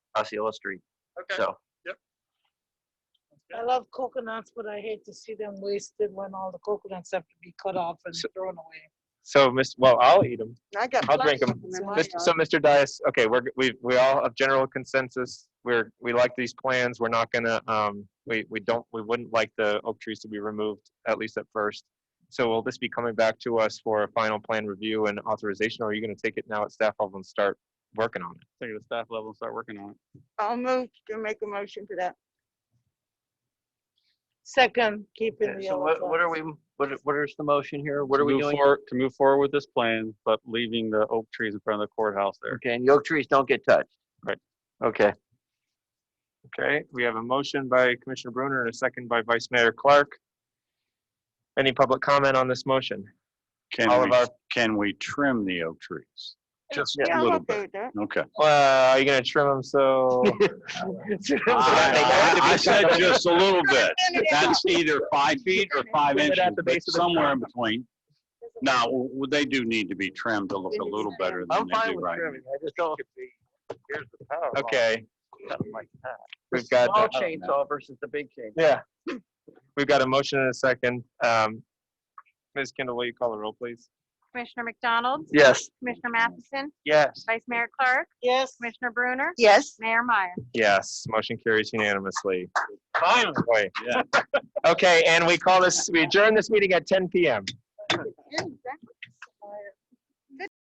Osceola Street. Okay. So I love coconuts, but I hate to see them wasted when all the coconuts have to be cut off and So- thrown away. so Miss well I'll eat them. I got. I'll drink 'em. plenty of 'em in my Mis- yard. So Mr. Dias, okay, we're g- we we all have general consensus. We're we like these plans. We're not gonna um we we don't we wouldn't like the oak trees to be removed at least at first. So will this be coming back to us for a final plan review and authorization, or are you gonna take it now at staff level and start working on it? Take it to staff level and start working on it. I'll move to make a motion for that. Second, keeping the Okay, So yellow what, what are flags. we, what, what is the motion here? What To are we move doing? forward- To move forward with this plan, but leaving the oak trees in front of the courthouse there. Okay, and the oak trees don't get touched? Right. Okay, Okay, we have a motion by Commissioner Bruner and a second by Vice Mayor Clark. Any public comment on this motion? All Can of we, our, can we trim the oak trees? Just Yeah, a I'm little okay bit. with that. Okay. well, uh, are you gonna trim them so? I I said just a little bit. That's either five feet or five Leave it inches, at the but base of the somewhere tree. in between. Now, w- w- they do need to be trimmed to look a little better than I'm they fine do with right. now. trimming, I just don't. Here's the power. line, Okay, something like that. we've got. Small that. chainsaw versus the big chainsaw. Yeah. We've got a motion and a second. Um, Ms. Kendall, will you call the roll, please? Commissioner McDonald, Yes. Commissioner Matheson, Yes. Vice Mayor Clark, Yes, Commissioner Bruner, Yes, Mayor Meyer. Yes, motion carries unanimously. Finally. Boy. Okay, and we call this, we adjourn this meeting at ten PM. Yeah, exactly.